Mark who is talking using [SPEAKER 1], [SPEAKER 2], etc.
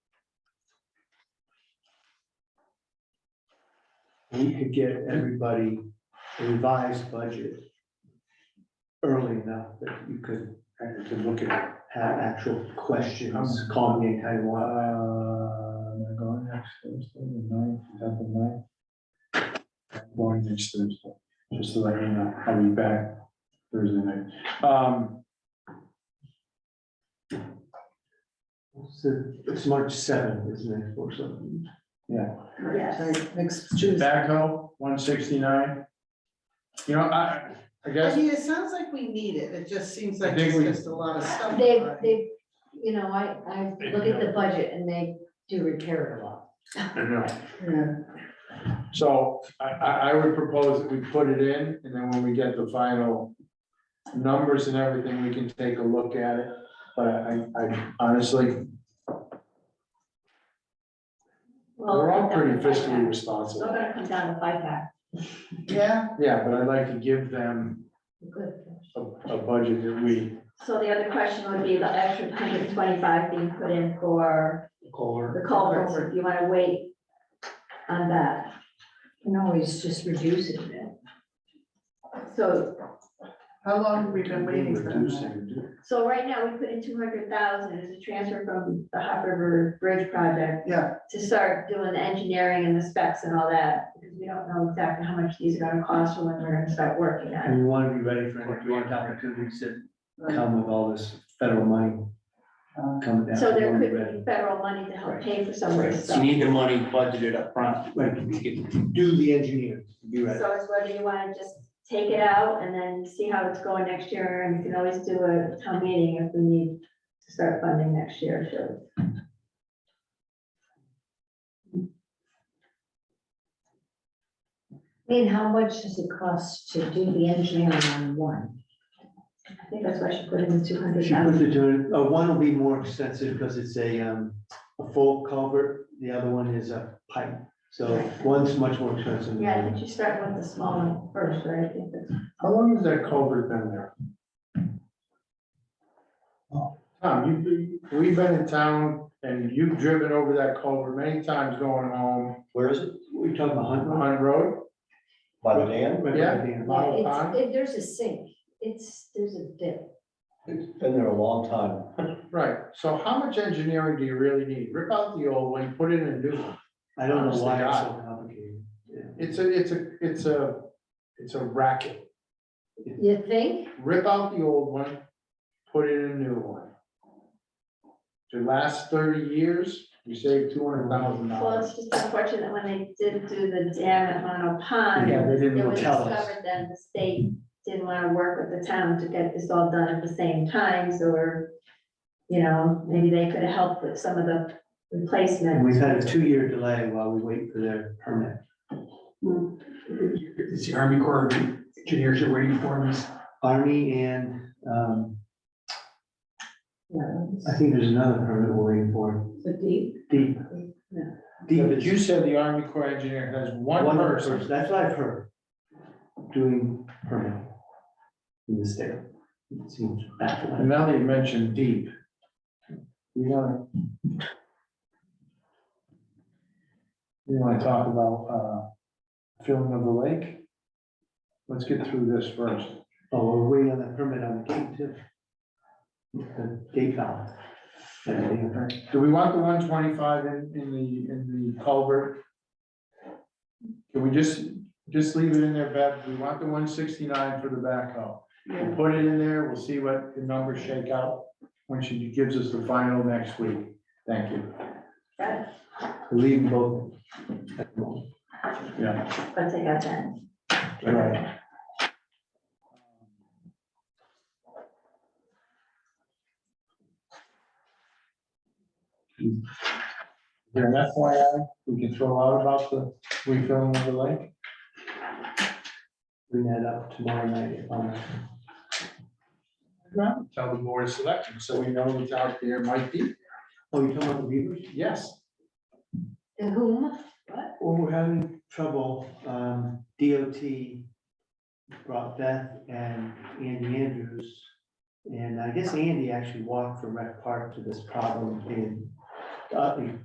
[SPEAKER 1] we could get everybody a revised budget early enough that you could, uh, to look at, have actual
[SPEAKER 2] Um,
[SPEAKER 1] questions, call me anytime you
[SPEAKER 2] Uh,
[SPEAKER 1] want.
[SPEAKER 2] I'm uh, going next Thursday, the ninth, is that the ninth? I'm Going next Thursday, just so that you know, I'll be back Thursday night. Um,
[SPEAKER 1] So it's March seventh, isn't it, or something?
[SPEAKER 3] Yes, next Tuesday.
[SPEAKER 2] backhoe, one sixty-nine. You know, I, I
[SPEAKER 3] I
[SPEAKER 2] guess,
[SPEAKER 3] mean, it sounds like we need it, it just seems
[SPEAKER 2] I
[SPEAKER 3] like
[SPEAKER 2] think
[SPEAKER 3] it's
[SPEAKER 2] we-
[SPEAKER 3] just a lot of stuff.
[SPEAKER 4] They,
[SPEAKER 3] Right.
[SPEAKER 4] they, you know, I, I look at the budget and they do repair it a lot.
[SPEAKER 2] I know.
[SPEAKER 3] Yeah.
[SPEAKER 2] So I, I, I would propose that we put it in, and then when we get the final numbers and everything, we can take a look at it, but I, I honestly, we're all pretty fiscally
[SPEAKER 4] Still
[SPEAKER 2] responsible.
[SPEAKER 4] gonna come down to five pack.
[SPEAKER 3] Yeah,
[SPEAKER 2] Yeah, but I'd like to give them
[SPEAKER 4] Good.
[SPEAKER 2] a, a budget that we,
[SPEAKER 5] So the other question would be the extra hundred and twenty-five being put in for
[SPEAKER 1] Caller.
[SPEAKER 5] the culverts, if you wanna wait on that.
[SPEAKER 4] Can always just reduce it a bit.
[SPEAKER 5] So,
[SPEAKER 3] how long have we been waiting for that?
[SPEAKER 2] reducing.
[SPEAKER 5] so right now, we put in two hundred thousand as a transfer from the Hop River Bridge project
[SPEAKER 3] Yeah,
[SPEAKER 5] to start doing the engineering and the specs and all that, because we don't know exactly how much these are gonna cost or when we're gonna start working on it.
[SPEAKER 1] And we want to be ready for any grant opportunities that come with all this federal money
[SPEAKER 3] uh,
[SPEAKER 1] coming down.
[SPEAKER 5] So
[SPEAKER 1] We
[SPEAKER 5] there
[SPEAKER 1] wanna be
[SPEAKER 5] could
[SPEAKER 1] ready.
[SPEAKER 5] be federal money to help pay for some of
[SPEAKER 1] Right,
[SPEAKER 5] this
[SPEAKER 1] so
[SPEAKER 5] stuff.
[SPEAKER 1] you need the money budgeted upfront, like, you can do the engineering, be ready.
[SPEAKER 5] So it's whether you wanna just take it out and then see how it's going next year, and we can always do a town meeting if we need to start funding next year, so.
[SPEAKER 4] I mean, how much does it cost to do the engineering on one?
[SPEAKER 5] I think that's why I should put in the two hundred
[SPEAKER 1] She put
[SPEAKER 5] thousand.
[SPEAKER 1] the two, uh, one will be more expensive because it's a, um, a full culvert, the other one is a pipe. So one's much more expensive than the
[SPEAKER 5] Yeah, I
[SPEAKER 1] other.
[SPEAKER 5] think you start with the small one first, right? I think that's-
[SPEAKER 2] How long has that culvert been there? Tom, you, we've been in town, and you've driven over that culvert many times going home,
[SPEAKER 6] Where is it?
[SPEAKER 1] We're talking about Hunt Run?
[SPEAKER 2] Hunt Road,
[SPEAKER 6] By the dam?
[SPEAKER 1] Right,
[SPEAKER 2] Yeah.
[SPEAKER 1] right there.
[SPEAKER 2] Lot of
[SPEAKER 4] Yeah,
[SPEAKER 2] time.
[SPEAKER 4] it's, it- there's a sink, it's, there's a dip.
[SPEAKER 6] It's been there a long time.
[SPEAKER 2] Right, so how much engineering do you really need? Rip out the old one, put in a new one.
[SPEAKER 1] I don't know why it's so complicated. Yeah.
[SPEAKER 2] It's a, it's a, it's a, it's a racket.
[SPEAKER 4] You think?
[SPEAKER 2] Rip out the old one, put in a new one. The last thirty years, you save two hundred thousand
[SPEAKER 5] Well,
[SPEAKER 2] dollars.
[SPEAKER 5] it's just unfortunate that when they did do the dam at Mono
[SPEAKER 1] Yeah,
[SPEAKER 5] Pond,
[SPEAKER 1] they
[SPEAKER 5] it
[SPEAKER 1] didn't
[SPEAKER 5] was
[SPEAKER 1] tell us.
[SPEAKER 5] discovered then the state didn't wanna work with the town to get this all done at the same time, so we're, you know, maybe they could have helped with some of the replacement.
[SPEAKER 1] And we've had a two-year delay while we wait for their permit.
[SPEAKER 7] It's the Army Corps of Engineers you're waiting for, Miss.
[SPEAKER 1] Army and, um,
[SPEAKER 4] No,
[SPEAKER 1] I think there's another permit we're waiting for.
[SPEAKER 4] it's a deep.
[SPEAKER 1] Deep.
[SPEAKER 4] Yeah.
[SPEAKER 1] Deep
[SPEAKER 2] But
[SPEAKER 1] is-
[SPEAKER 2] you said the Army Corps engineer has one person.
[SPEAKER 1] That's what I've heard, doing permit in the state. It seems
[SPEAKER 2] And
[SPEAKER 1] baffling.
[SPEAKER 2] now that you mentioned deep. You wanna. You wanna talk about, uh, filling of the lake? Let's get through this first.
[SPEAKER 1] Oh, we're waiting on that permit on the gate too. The gate valve. Everything.
[SPEAKER 2] Do we want the one twenty-five in, in the, in the culvert? Can we just, just leave it in there, Bev? We want the one sixty-nine for the backhoe. We'll Put it in there, we'll see what the numbers shake out when she gives us the final next week. Thank you.
[SPEAKER 1] Leave both.
[SPEAKER 2] Yeah.
[SPEAKER 5] Let's take out that.
[SPEAKER 2] Right. Is there an FYI we can throw out about the refilling of the lake?
[SPEAKER 1] Bring that up tomorrow night. um,
[SPEAKER 2] Tell the board of selectmen, so we know who's out there might be,
[SPEAKER 1] Oh, you're talking about the beavers?
[SPEAKER 2] yes.
[SPEAKER 4] To whom?
[SPEAKER 1] Well, we're having trouble. Um, DOT brought Beth and Andy Andrews. And I guess Andy actually walked from Rec Park to this problem in, uh,